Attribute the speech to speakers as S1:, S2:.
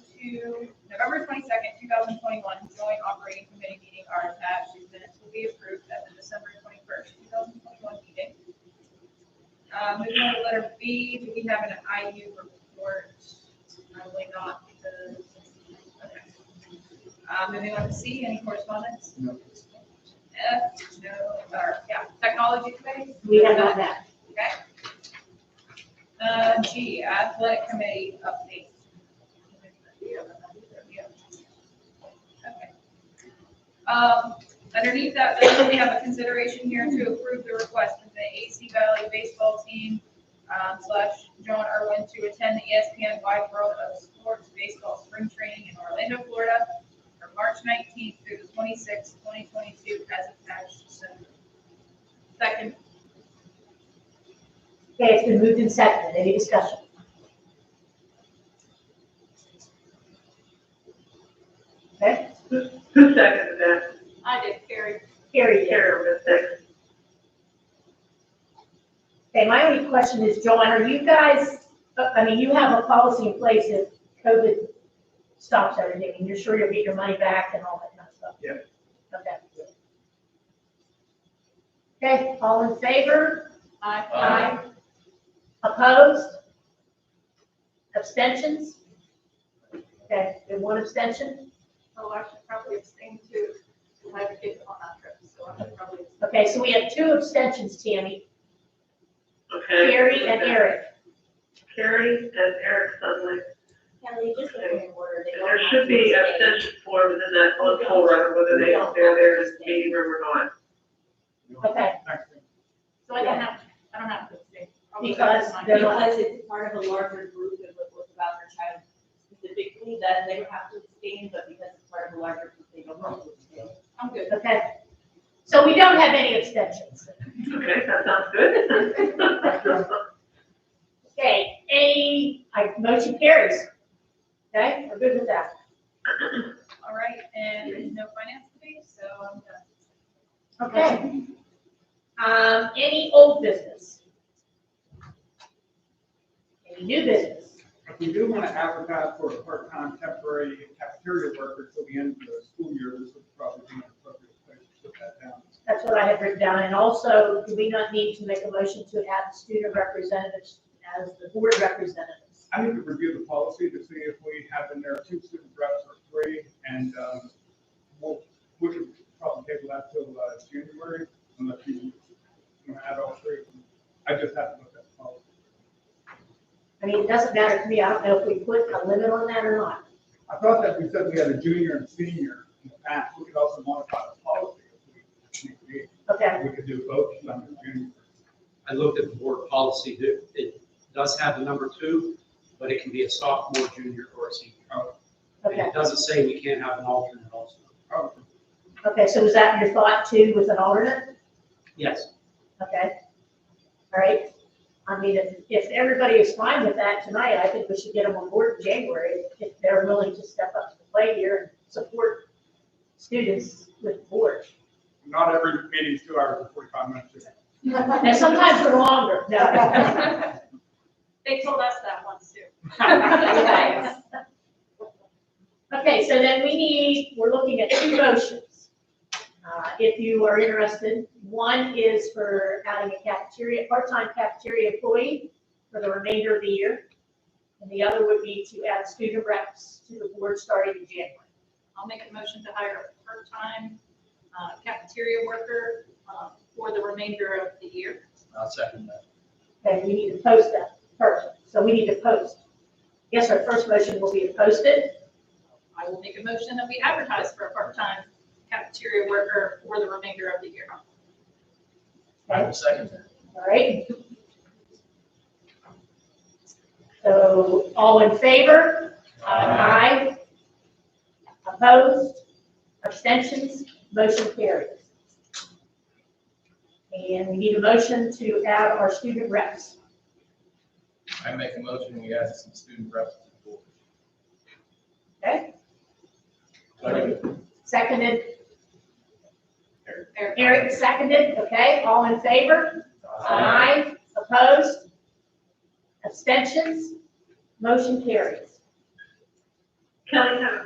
S1: twenty-two, November twenty-second, two thousand twenty-one, joint operating committee meeting are attached. These minutes will be approved at the December twenty-first, two thousand twenty-one meeting. Uh, moving on to letter B, do we have an IU report? Probably not because, okay. Uh, moving on to C, any correspondence?
S2: No.
S1: F, no, or, yeah, technology committee?
S3: We have not met.
S1: Okay. Uh, G, athletic committee update. Okay. Um, underneath that, then we have a consideration here to approve the request from the AC Valley baseball team um, slash John Irwin to attend the E ESPN Wide World of Sports Baseball Spring Training in Orlando, Florida from March nineteenth through the twenty-sixth, twenty twenty-two as attached. So, Second,
S3: Okay, it's been moved and seconded. Any discussion? Okay,
S4: Who seconded that?
S1: I did carry
S3: Carrie did.
S4: Karen was second.
S3: Okay, my only question is, Joanne, are you guys, uh, I mean, you have a policy in place if COVID stops everything, and you're sure you'll get your money back and all that kind of stuff?
S2: Yeah.
S3: Okay. Okay, all in favor?
S1: Aye.
S2: Aye.
S3: Opposed? Abstentions? Okay, and one abstention?
S1: Oh, I should probably abstain too, because I have kids on that trip, so I should probably.
S3: Okay, so we have two abstentions, Tammy,
S4: Okay.
S3: Carrie and Eric.
S4: Carrie and Eric Sudley.
S5: Yeah, they just put it in order. They
S4: And
S5: don't
S4: there
S5: have
S4: should be
S5: to
S4: a
S5: stay.
S4: session form within that on poll right, whether they, they're there in the meeting room or not.
S3: Okay,
S1: So I don't have, I don't have to abstain. I'll leave that
S3: Because
S1: as mine.
S3: they're not-
S5: Because it's part of a larger group and what was about their child specifically, then they would have to abstain, but because it's part of a larger group, they don't have to abstain.
S1: I'm good.
S3: okay. So we don't have any abstentions.
S4: Okay, that sounds good.
S3: Okay, A, I, motion carries. Okay, we're good with that.
S1: All right, and there's no finance today, so I'm done.
S3: Okay. Um, any old business? Any new business?
S2: If we do want to advertise for a part-time temporary cafeteria worker till the end of the school year, this would probably be an appropriate place to put that down.
S3: That's what I had written down. And also, do we not need to make a motion to add student representatives as the board representatives?
S2: I need to review the policy to see if we have in there two student reps or three, and um, we'll, we could probably table that till uh, January, unless you want to add all three. I just have to look at the policy.
S3: I mean, it doesn't matter to me. I don't know if we put a limit on that or not.
S2: I thought that we said we had a junior and senior in the past, we could also modify the policy if we need to.
S3: Okay,
S2: We could do both, summer and junior.
S6: I looked at the board policy, it, it does have the number two, but it can be a sophomore, junior, or a senior. Oh, And
S3: okay,
S6: it doesn't say we can't have an alternate also.
S2: Oh,
S3: okay. So was that your thought too with an alternate?
S6: Yes,
S3: Okay, all right. I mean, if, if everybody is fine with that tonight, I think we should get them on board in January if they're willing to step up to the plate here and support students with the board.
S2: Not every meeting is two hours and forty-five minutes.
S3: And sometimes they're longer, no.
S1: They told us that once too.
S3: Okay. Okay, so then we need, we're looking at two motions. Uh, If you are interested, one is for adding a cafeteria, part-time cafeteria employee for the remainder of the year. And the other would be to add student reps to the board starting in January.
S1: I'll make a motion to hire a part-time uh, cafeteria worker uh, for the remainder of the year.
S6: I'll second that.
S3: Okay, we need to post that first, so we need to post. Yes, our first motion will be to post it.
S1: I will make a motion that we advertise for a part-time cafeteria worker for the remainder of the year.
S3: I
S6: will second that.
S3: all right? So, all in favor? Aye. Opposed? Abstentions? Motion carries. And we need a motion to add our student reps.
S7: I make a motion, we add some student reps to the board.
S3: Okay?
S7: Second.
S3: Seconded,
S1: Eric?
S3: Eric seconded, okay? All in favor?
S7: Aye.
S3: Aye. Opposed? Abstentions? Motion carries.
S4: Kelly, have a